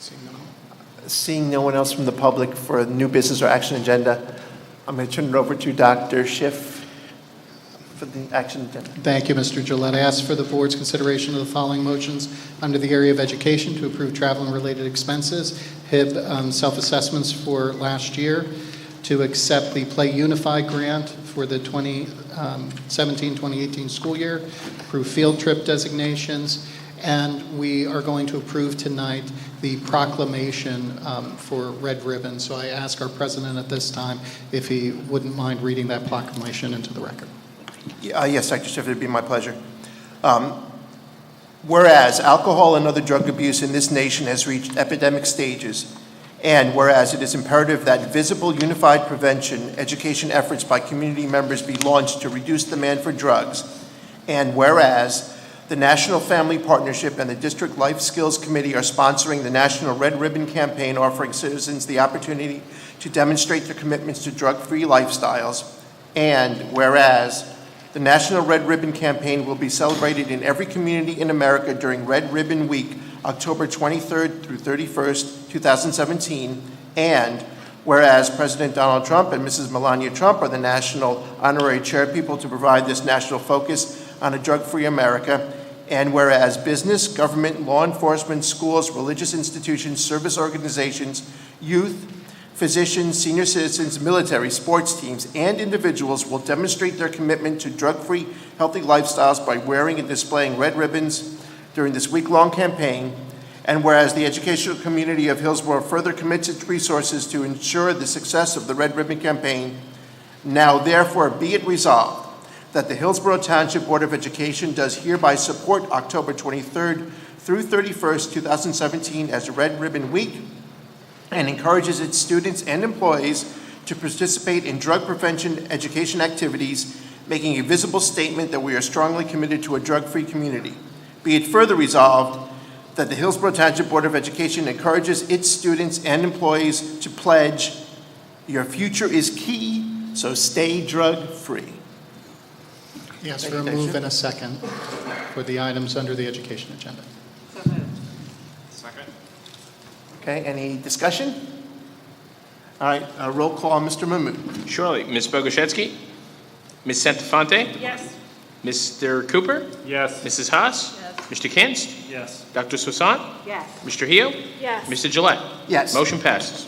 Seeing none. Seeing no one else from the public for a new business or action agenda, I'm going to turn it over to Dr. Schiff for the action agenda. Thank you, Mr. Gillette. I ask for the board's consideration of the following motions under the area of education to approve travel and related expenses, HIB um, self-assessments for last year, to accept the Play Unify grant for the um, 2017-2018 school year, approve field trip designations, and we are going to approve tonight the proclamation um, for Red Ribbon. So I ask our president at this time if he wouldn't mind reading that proclamation into the record. Uh, Yes, Dr. Schiff, it'd be my pleasure. Um, Whereas alcohol and other drug abuse in this nation has reached epidemic stages, and whereas it is imperative that visible unified prevention education efforts by community members be launched to reduce demand for drugs, and whereas the National Family Partnership and the District Life Skills Committee are sponsoring the National Red Ribbon Campaign offering citizens the opportunity to demonstrate their commitments to drug-free lifestyles, and whereas the National Red Ribbon Campaign will be celebrated in every community in America during Red Ribbon Week, October 23rd through 31st, 2017. And whereas President Donald Trump and Mrs. Melania Trump are the national honorary chairpeople to provide this national focus on a drug-free America, and whereas business, government, law enforcement, schools, religious institutions, service organizations, youth, physicians, senior citizens, military, sports teams, and individuals will demonstrate their commitment to drug-free, healthy lifestyles by wearing and displaying red ribbons during this week-long campaign. And whereas the educational community of Hillsborough further commits its resources to ensure the success of the Red Ribbon Campaign, now therefore be it resolved that the Hillsborough Township Board of Education does hereby support October 23rd through 31st, 2017 as Red Ribbon Week and encourages its students and employees to participate in drug prevention education activities, making a visible statement that we are strongly committed to a drug-free community. Be it further resolved that the Hillsborough Township Board of Education encourages its students and employees to pledge, "Your future is key, so stay drug-free." Yes, Thank for a you, Dr. move Schiff. and a second for the items under the education agenda. So moved. Second? Okay, any discussion? All right, uh, roll call, Mr. Mahmood. Surely. Ms. Bogoshevsky? Ms. Santafonte? Yes. Mr. Cooper? Yes. Mrs. Haas? Yes. Mr. Kinst? Yes. Dr. Swasan? Yes. Mr. Hio? Yes. Mr. Gillette? Yes. Motion passes.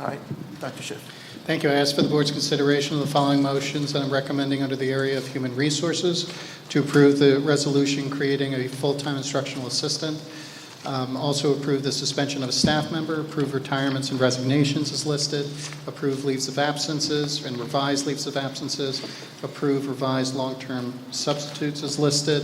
All right, Dr. Schiff. Thank you. I ask for the board's consideration of the following motions that I'm recommending under the area of human resources to approve the resolution creating a full-time instructional assistant. Um, Also approve the suspension of a staff member, approve retirements and resignations as listed, approve leaves of absences and revised leaves of absences, approve revised long-term substitutes as listed,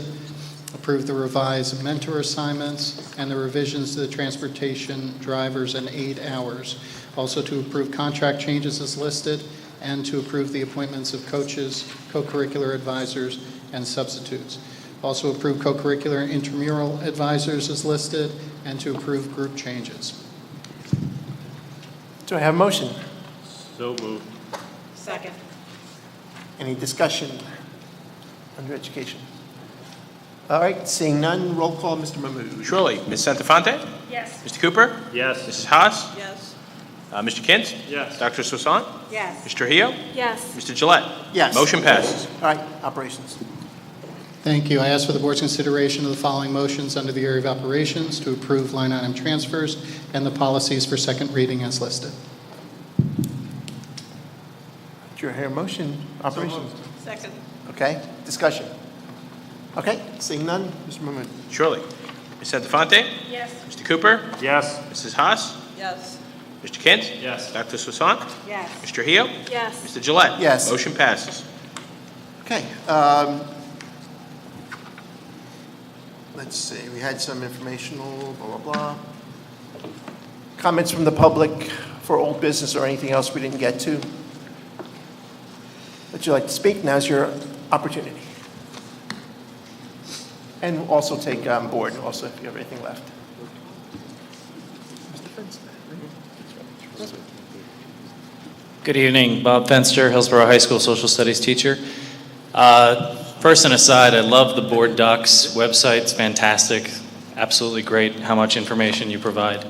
approve the revised mentor assignments and the revisions to the transportation drivers and aid hours. Also to approve contract changes as listed and to approve the appointments of coaches, co-curricular advisors, and substitutes. Also approve co-curricular and intramural advisors as listed and to approve group changes. Do I have a motion? So moved. Second. Any discussion under education? All right, seeing none, roll call, Mr. Mahmood. Surely. Ms. Santafonte? Yes. Mr. Cooper? Yes. Mrs. Haas? Yes. Uh, Mr. Kinst? Yes. Dr. Swasan? Yes. Mr. Hio? Yes. Mr. Gillette? Yes. Motion passes. All right, operations. Thank you. I ask for the board's consideration of the following motions under the area of operations to approve line item transfers and the policies for second reading as listed. Do you hear a motion? Operations. Second. Okay, discussion. Okay, seeing none, Mr. Mahmood. Surely. Ms. Santafonte? Yes. Mr. Cooper? Yes. Mrs. Haas? Yes. Mr. Kinst? Yes. Dr. Swasan? Yes. Mr. Hio? Yes. Mr. Gillette? Yes. Motion passes. Okay, um, let's see, we had some informational, blah, blah, blah. Comments from the public for old business or anything else we didn't get to? Would you like to speak? Now's your opportunity. And also take on board, also if you have anything left. Good evening, Bob Fenster, Hillsborough High School Social Studies teacher. Uh, First and aside, I love the Board Docs website, it's fantastic, absolutely great how much information you provide.